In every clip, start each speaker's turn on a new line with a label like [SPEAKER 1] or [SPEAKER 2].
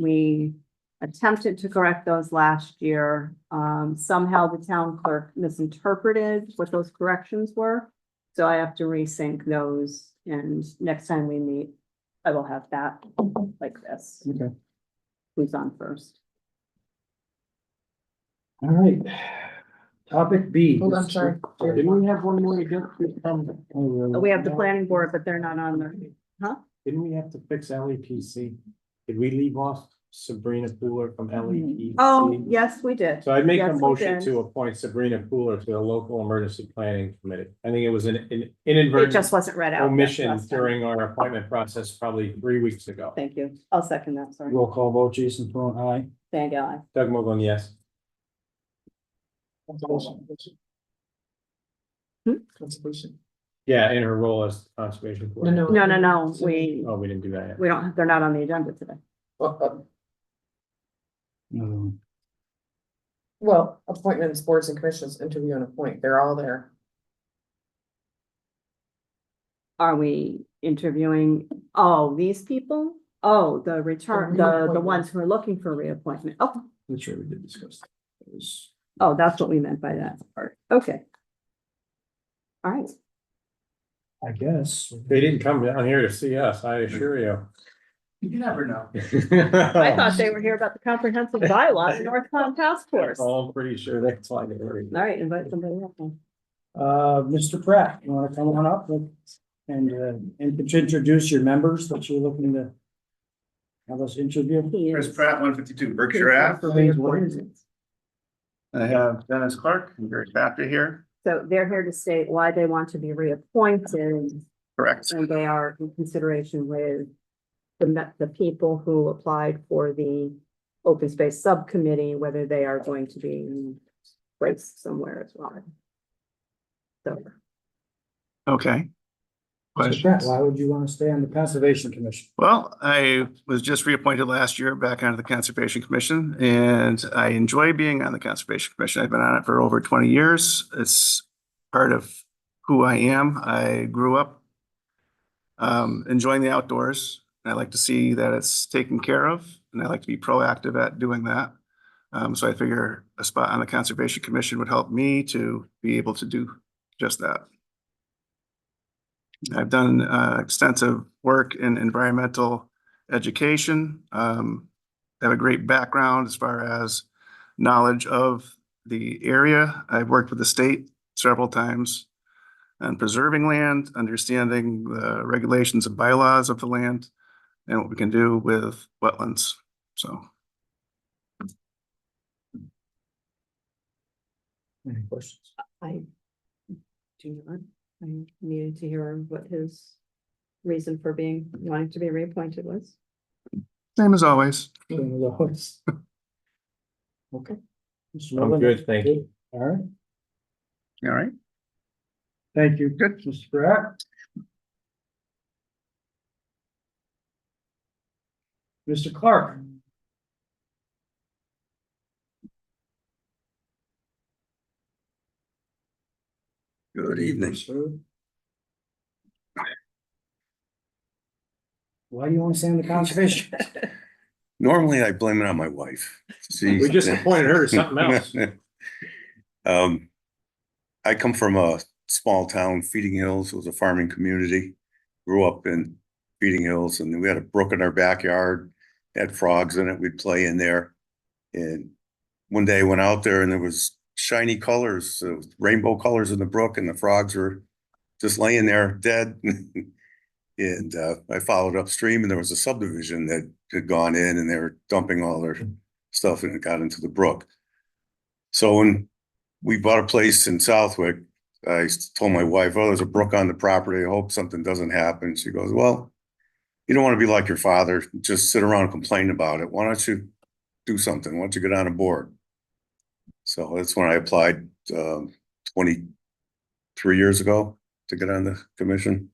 [SPEAKER 1] we attempted to correct those last year. Um, somehow the town clerk misinterpreted what those corrections were. So I have to resync those and next time we meet, I will have that like this.
[SPEAKER 2] Okay.
[SPEAKER 1] Who's on first?
[SPEAKER 2] All right. Topic B.
[SPEAKER 3] Hold on, sorry.
[SPEAKER 2] Didn't we have one more Um, to go?
[SPEAKER 1] We have the planning board, but they're not on there. Huh?
[SPEAKER 2] Didn't we have to fix LEPC? Did we leave off Sabrina Pooler from
[SPEAKER 1] Mm-hmm.
[SPEAKER 2] LEPC?
[SPEAKER 1] Oh, yes, we did.
[SPEAKER 2] So I make a
[SPEAKER 1] Yes, we
[SPEAKER 2] motion
[SPEAKER 1] did.
[SPEAKER 2] to appoint Sabrina Pooler to the local emergency planning committee. I think it was an an
[SPEAKER 1] It
[SPEAKER 2] inadvertent
[SPEAKER 1] just wasn't read out.
[SPEAKER 2] omission
[SPEAKER 1] Last time.
[SPEAKER 2] during our appointment process probably three weeks ago.
[SPEAKER 1] Thank you. I'll second that, sorry.
[SPEAKER 2] Roll call vote, Jason Peron, aye.
[SPEAKER 1] Thank you.
[SPEAKER 2] Doug Mogul, yes.
[SPEAKER 3] Conservation.
[SPEAKER 2] Yeah, in her role as conservation.
[SPEAKER 3] No, no.
[SPEAKER 1] No,
[SPEAKER 2] coordinator.
[SPEAKER 1] no, no, we,
[SPEAKER 2] Oh, we didn't do that yet.
[SPEAKER 1] we don't, they're not on the agenda today.
[SPEAKER 3] uh,
[SPEAKER 2] No.
[SPEAKER 3] Well, appointments, boards and commissions, interview and appoint, they're all there.
[SPEAKER 1] Are we interviewing, oh, these people? Oh, the return, the, the ones who are looking for reappointment. Oh,
[SPEAKER 2] I'm sure we did discuss. that. It was-
[SPEAKER 1] oh, that's what we meant by that part. Okay. All right,
[SPEAKER 2] I guess. They didn't come down here to see us, I assure you.
[SPEAKER 3] You never know.
[SPEAKER 4] Oh.
[SPEAKER 1] I thought they were here about the comprehensive bylaw, the North Con Task Force.
[SPEAKER 4] Oh.
[SPEAKER 1] All
[SPEAKER 2] All pretty sure that's why they were. here.
[SPEAKER 1] right, invite somebody up. then.
[SPEAKER 5] Uh, Mr. Pratt, you wanna come on up and, and, uh, and could you introduce your members that you're looking to have us interview?
[SPEAKER 1] He
[SPEAKER 4] Chris
[SPEAKER 1] is-
[SPEAKER 4] Pratt, one fifty-two
[SPEAKER 1] he's
[SPEAKER 4] Berkshire Ave.
[SPEAKER 1] for reappointment.
[SPEAKER 4] I have Dennis Clark and Gary Factor here,
[SPEAKER 1] So they're here to state why they want to be reappointed
[SPEAKER 4] correct?
[SPEAKER 1] and they are in consideration with the, me- the people who applied for the open space subcommittee, whether they are going to be placed somewhere as well. So,
[SPEAKER 4] Okay.
[SPEAKER 5] Mr. Pratt, why would you wanna stay on the Conservation Commission?
[SPEAKER 4] Well, I was just reappointed last year back onto the Conservation Commission and I enjoy being on the Conservation Commission. I've been on it for over twenty years. It's part of who I am. I grew up um, enjoying the outdoors. and I like to see that it's taken care of and I like to be proactive at doing that. Um, so I figure a spot on the Conservation Commission would help me to be able to do just that. I've done uh, extensive work in environmental education. Um, I Have a great background as far as knowledge of the area. I've worked with the state several times on preserving land, understanding the regulations and bylaws of the land and what we can do with wetlands. So
[SPEAKER 5] Any questions?
[SPEAKER 1] I do not, I needed to hear what his reason for being, wanting to be reappointed was.
[SPEAKER 4] same as always.
[SPEAKER 5] Any of those? Okay. Mr.
[SPEAKER 2] I'm
[SPEAKER 5] Nolan?
[SPEAKER 2] good, thank you.
[SPEAKER 5] All right,
[SPEAKER 4] All right.
[SPEAKER 5] thank you, good, Mr. Pratt. Mr. Clark?
[SPEAKER 6] Good evening.
[SPEAKER 5] Sir? Why do you wanna stay on the Conservation?
[SPEAKER 6] Normally I blame it on my wife.
[SPEAKER 2] We just appointed her to something else.
[SPEAKER 6] Um, I come from a small town, Feeding Hills was a farming community. Grew up in Feeding Hills and we had a brook in our backyard, had frogs in it, we'd play in there. And one day I went out there and there was shiny colors, uh, rainbow colors in the brook and the frogs were just laying there dead. And uh, I followed upstream and there was a subdivision that had gone in and they were dumping all their stuff and it got into the brook. So when we bought a place in Southwick, I s- told my wife, oh, there's a brook on the property. I hope something doesn't happen. She goes, well, you don't want to be like your father, just sit around and complain about it. Why don't you do something? Why don't you get on a board? So that's when I applied um, twenty-three years ago to get on the commission.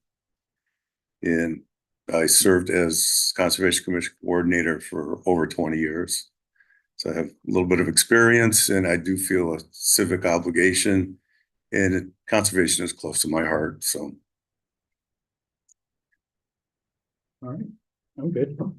[SPEAKER 6] And I served as Conservation Commission Coordinator for over twenty years. So I have a little bit of experience and I do feel a civic obligation. And it- conservation is close to my heart, so
[SPEAKER 5] I'm good.